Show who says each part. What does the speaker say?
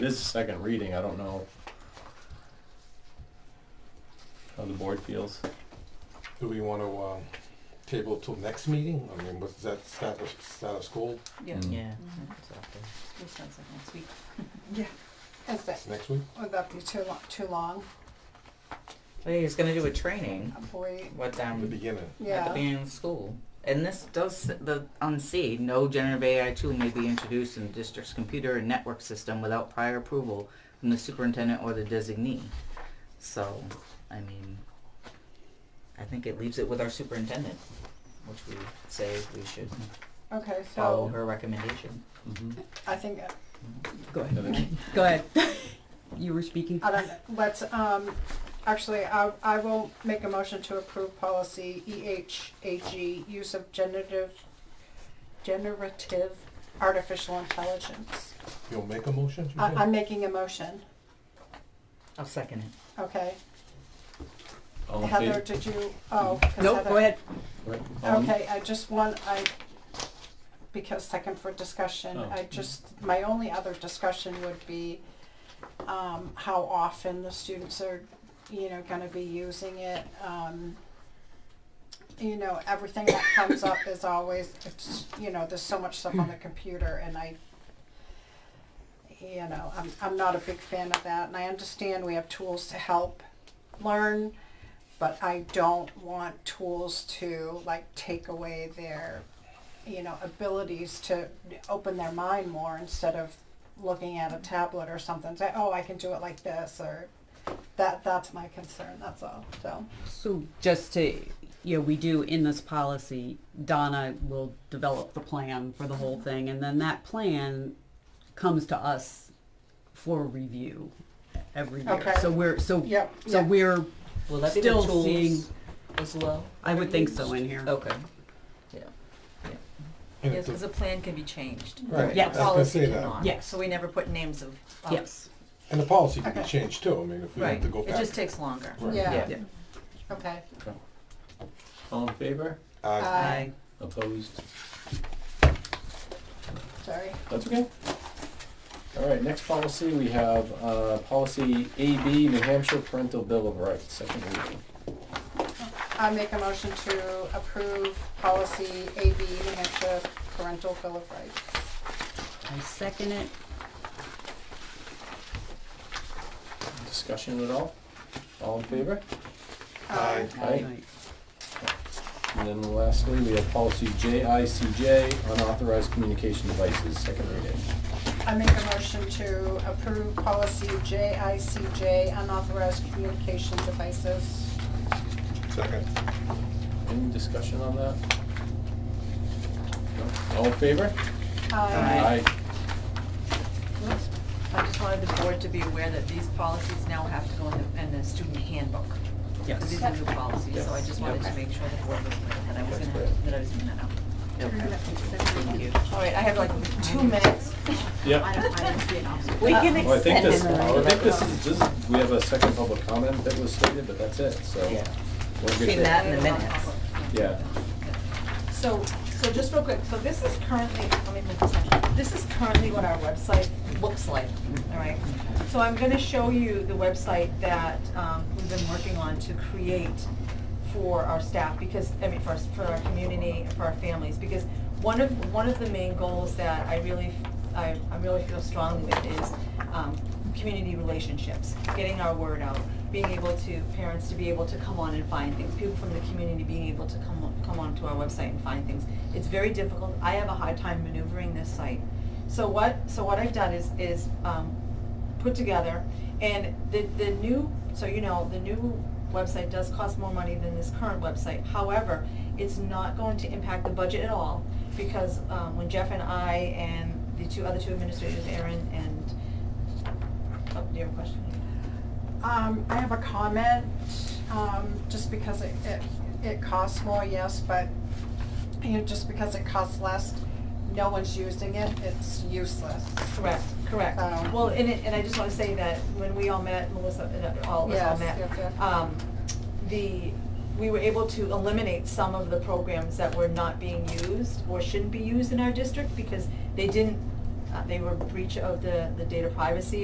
Speaker 1: This is second reading, I don't know how the board feels.
Speaker 2: Do we want to um, table till next meeting? I mean, was that status, status quo
Speaker 3: Yeah,
Speaker 4: Mm.
Speaker 5: Yeah.
Speaker 3: Mhm.
Speaker 5: exactly.
Speaker 3: This sounds like next week.
Speaker 6: Yeah, that's it.
Speaker 2: next week?
Speaker 6: Would that be too long, too long?
Speaker 5: Well, he was gonna do a training
Speaker 6: Avoid,
Speaker 5: with
Speaker 2: The
Speaker 5: them
Speaker 2: beginning.
Speaker 5: at the
Speaker 6: yeah.
Speaker 5: beginning of school. And this does s- the on C, no generative AI tool may be introduced in the district's computer and network system without prior approval from the superintendent or the designee. So, I mean, I think it leaves it with our superintendent, which we say we should
Speaker 6: Okay,
Speaker 5: follow
Speaker 6: so
Speaker 5: her recommendation.
Speaker 6: I think, uh,
Speaker 5: Go
Speaker 1: I think-
Speaker 7: Go ahead. You were speaking.
Speaker 6: I
Speaker 3: Uh,
Speaker 6: don't, know. let's, um, actually, I, I will make a motion to approve policy E EHAG, use of generative, generative artificial intelligence.
Speaker 2: You'll make a motion? you
Speaker 6: I,
Speaker 2: said?
Speaker 6: I'm making a motion,
Speaker 5: I'll second it.
Speaker 6: okay?
Speaker 1: All in
Speaker 6: Heather,
Speaker 1: favor?
Speaker 6: did you, oh. 'cause
Speaker 7: Nope,
Speaker 6: Heather-
Speaker 7: go ahead.
Speaker 1: Right, all in-
Speaker 6: Okay, I just want, I, because second for discussion,
Speaker 1: Oh.
Speaker 6: I just, my only other discussion would be um, how often the students are, you know, gonna be using it. Um, you know, everything that comes up is always, it's, you know, there's so much stuff on the computer and I, you know, I'm, I'm not a big fan of that and I understand we have tools to help learn, but I don't want tools to like take away their, you know, abilities to open their mind more instead of looking at a tablet or something, say, oh, I can do it like this or that, that's my concern, that's all, so.
Speaker 7: So just to, you know, we do in this policy, Donna will develop the plan for the whole thing and then that plan comes to us for review every year.
Speaker 6: Okay.
Speaker 7: So we're, so,
Speaker 6: Yep,
Speaker 7: so
Speaker 6: yep.
Speaker 7: we're,
Speaker 5: Will that be
Speaker 7: Still
Speaker 5: the tools
Speaker 7: seeing-
Speaker 5: as well?
Speaker 7: I would think so in here.
Speaker 5: Okay.
Speaker 2: And
Speaker 3: Yes,
Speaker 2: it's a-
Speaker 3: because the plan can be changed.
Speaker 2: Right,
Speaker 7: Yes.
Speaker 3: The
Speaker 2: I was gonna
Speaker 3: policy
Speaker 2: say that.
Speaker 3: cannot.
Speaker 7: Yes.
Speaker 3: So we never put names of. of-
Speaker 7: Yes.
Speaker 2: And the policy can be
Speaker 6: Okay.
Speaker 2: changed too. I mean, if we have
Speaker 3: Right.
Speaker 2: to go
Speaker 3: It
Speaker 2: back.
Speaker 3: just takes longer.
Speaker 2: Right.
Speaker 6: Yeah,
Speaker 5: Yeah.
Speaker 6: okay.
Speaker 1: Oh. all in favor?
Speaker 2: Uh,
Speaker 6: Aye.
Speaker 1: Opposed?
Speaker 6: Sorry.
Speaker 1: That's okay. All right, next policy, we have, uh, policy AB, New Hampshire Parental Bill of Rights, second reading.
Speaker 6: I make a motion to approve policy AB, New Hampshire parental bill of rights.
Speaker 7: I second it.
Speaker 1: Discussion at all? All in favor?
Speaker 2: Aye.
Speaker 1: Aye. And then lastly, we have policy JICJ, unauthorized communication devices, second reading.
Speaker 6: Um, I make a motion to approve policy JICJ, unauthorized communication devices.
Speaker 3: uh,
Speaker 2: Second.
Speaker 1: Any discussion on that? No? All in favor?
Speaker 6: Aye.
Speaker 3: I just wanted the board to be aware that these policies now have to go in the, in the student handbook.
Speaker 7: Yes.
Speaker 3: These are new policies, so I just wanted to
Speaker 1: Yes.
Speaker 3: make sure the board was aware that I was
Speaker 1: That's
Speaker 3: gonna,
Speaker 1: great.
Speaker 3: that I was gonna know.
Speaker 5: Okay. Thank you.
Speaker 3: All right, I have like two minutes.
Speaker 1: Yeah.
Speaker 3: We can
Speaker 1: Well, I think this, I think this is, this, is- we have a second public comment that was stated, but that's it, so.
Speaker 5: Yeah.
Speaker 1: we're good
Speaker 5: Between
Speaker 1: there.
Speaker 5: that and the minutes.
Speaker 1: Yeah.
Speaker 8: So, so just real quick, so this is currently, let me move this down. This is currently what our website looks like, all right? So I'm gonna show you the website that, um, we've been working on to create for our staff, because, I mean, for, us- for our community and for our families, because one of, one of the main goals that I really, I, I really feel strongly with is, um, community relationships, getting our word out, being able to, parents to be able to come on and find things, people from the community being able to come, on- come onto our website and find things. It's very difficult, I have a hard time maneuvering this site. So what, so what I've done is, is, um, put together, and the, the new, so you know, the new website does cost more money than this current website. However, it's not going to impact the budget at all, because, um, when Jeff and I and the two, other two administrators, Erin and, oh, do you have a question?
Speaker 6: Um, I have a comment, um, just because it, it, it costs more, yes, but, you know, just because it costs less, no one's using it, it's useless.
Speaker 8: Correct, correct.
Speaker 6: Um,
Speaker 8: Well, and it, and I just wanna say that when we all met, Melissa, and all, of us all
Speaker 6: Yes,
Speaker 8: met,
Speaker 6: yes, yes.
Speaker 8: um, the, we were able to eliminate some of the programs that were not being used or shouldn't be used in our district because they didn't, uh, they were breach of the, the data privacy